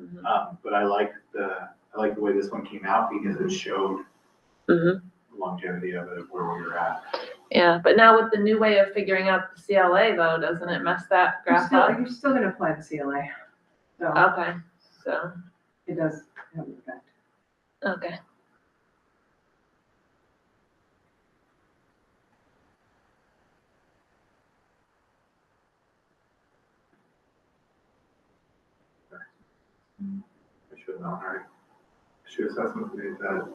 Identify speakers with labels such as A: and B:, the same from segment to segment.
A: Mhm.
B: Um, but I like the, I like the way this one came out because it showed
A: Mhm.
B: longevity of it, where we were at.
A: Yeah, but now with the new way of figuring out the CLA though, doesn't it mess that
C: You're
A: graph
C: still,
A: up?
C: you're still gonna apply the CLA,
D: Oh.
C: so
A: Okay, so,
C: it does have an effect.
A: okay.
B: I should have known, right? Should assessment made that.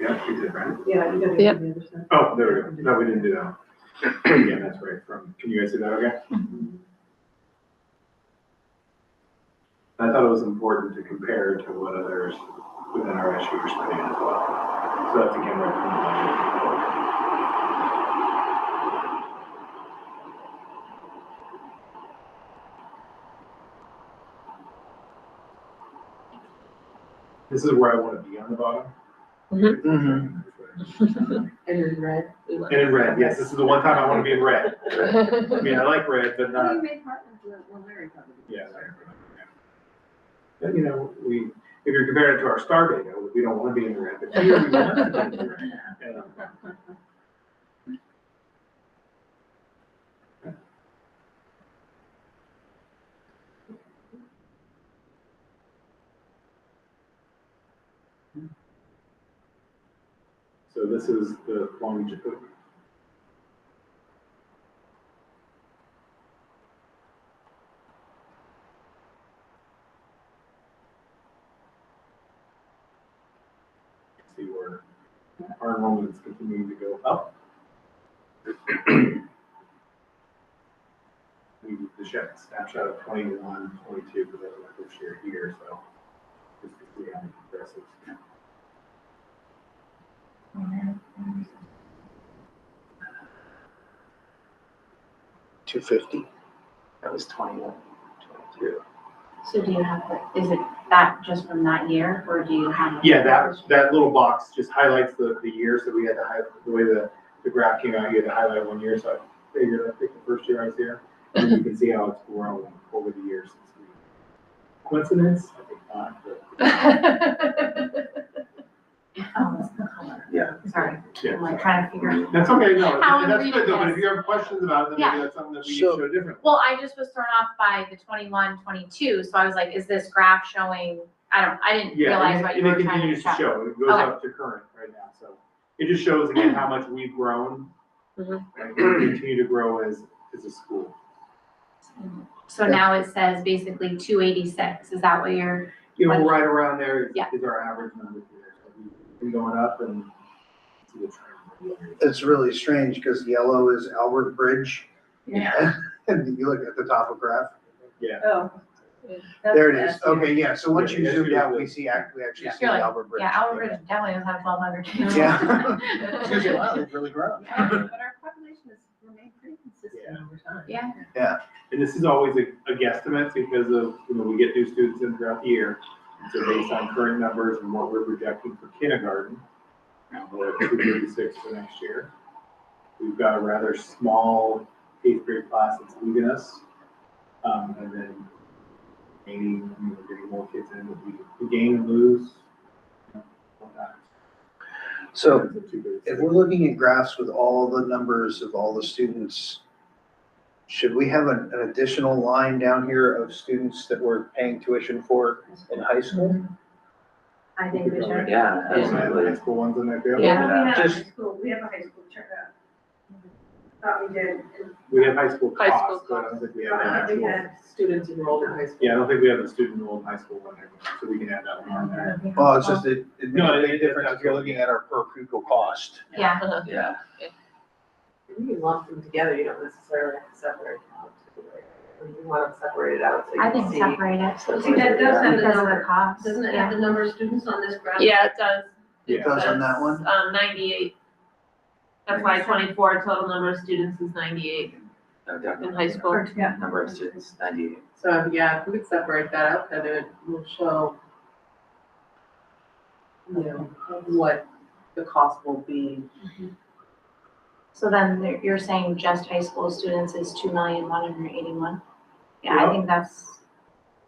B: Yeah, we did, right?
C: Yeah, you gotta
A: Yep.
C: do the other side.
B: Oh, there we go. No, we didn't do that. Yeah, that's right. From, can you guys see that okay? I thought it was important to compare to what others within our issue are spending as well. So that's again right from the budget. This is where I want to be on the bottom.
A: Mhm.
C: And in red.
A: We went-
B: And in red, yes, this is the one time I want to be in red.
C: Oh,
B: I mean, I like red, but not.
C: We made partners with, well, Larry probably. did.
B: Yeah. But you know, we, if you're comparing it to our star data, we don't wanna be in the red, but here we want to be in the red. And, um, So this is the longevity. See where our enrollment's continuing to go up. We did the shot- snapshot of 21, 22 for the this year here, so. Just to see how it progresses.
E: two fifty. That was twenty-one, twenty-two.
D: So do you have, the- is it that just from that year, or do you have?
B: Yeah, that, that little box just highlights the, the year, so we had to highlight, the way the, the graph came out, you had to highlight one year, so I figured I'd pick the first year I was here. And you can see how it's grown over the years. since we- Coincidence? I think not, but.
D: Oh, it's the color,
E: Yeah.
D: sorry,
B: Yeah.
D: I'm like trying to figure.
B: That's okay, no,
D: How we
B: that's
D: read
B: good though, but
D: this.
B: if you have questions about it, then maybe that's something that we
E: So-
B: can show differently.
D: Well, I just was thrown off by the 21, 22. so I was like, is this graph showing, I don't, I didn't
B: Yeah,
D: realize
B: and
D: what
B: it-
D: you
B: and it
D: were trying to
B: continues to
D: show.
B: show, it goes
D: Okay.
B: up to current right now, so. It just shows again how much we've grown.
D: Mm-hmm.
A: Mhm.
B: And we continue to grow as, as a school.
D: So now it says basically two eighty-six, is that what you're,
B: You know, right around there is,
D: Yeah.
B: is our average number here, so we've been going up and. see the trend.
E: It's really strange because yellow is Albert Bridge.
C: Yeah.
E: And you look at the top of graph,
B: Yeah,
C: Oh.
A: Yeah.
C: that's
E: there it is.
C: nasty.
E: Okay, yeah, so once
B: Yeah,
E: you
B: yeah,
E: zoom
B: yeah.
E: out, we see, act- we actually
C: Yeah.
E: see the
D: You're like,
E: Albert Bridge.
D: yeah, Albert Bridge definitely doesn't have twelve hundred.
E: Yeah. It's like, wow, they've really grown.
C: But our population has remained pretty consistent over time.
D: Yeah,
B: and this is always a, a guesstimate because of, you know, we get new students in throughout the year. And So based on current numbers and what we're projecting for kindergarten, now we're at two thirty-six for next year. We've got a rather small eighth grade class that's leaving us. Um, and then maybe we're getting more kids in, but we, we gain and lose. you know, whatnot.
E: So
B: It's a 236.
E: if we're looking at graphs with all the numbers of all the students, should we have an, an additional line down here of students that we're paying tuition for in high school?
C: I think we should.
F: Yeah,
B: Those are the high school ones in there, too.
A: Yeah.
G: We have a high
E: Just-
G: school, we have a high school checkup. Thought we did.
B: We have high school
A: High school
B: costs, but I don't think we have an
G: Uh, we
B: actual.
G: had,
C: Students enrolled in high school.
B: Yeah, I don't think we have a student enrolled in high school one there, so we can add that one on there.
E: Well, oh, it's just, it, it makes
B: No,
E: a
B: it- it-
E: big difference if you're looking at our per pupil cost.
D: yeah,
A: Uh-huh.
F: yeah.
H: You can lump them together, you don't necessarily have to separate them out. Or You want them separated out so
D: I
H: you
D: think
H: can see.
D: separate it
G: see, that does have the
D: because of the
G: number,
D: cost.
G: doesn't it
D: yeah.
G: have the number of students on this graph?
A: Yeah, it does.
B: Yeah.
E: It does on that
A: says,
E: one?
A: Um, ninety-eight. FY twenty-four, total number of students is ninety-eight
F: No, Oh, definitely.
A: in high school.
G: Or- Yeah.
F: Number of students, ninety-eight.
H: So, yeah, if we could separate that out, then it will show, you know, what the cost will be.
D: So then there- you're saying just high school students is two million one hundred eighty-one? Yeah, I think that's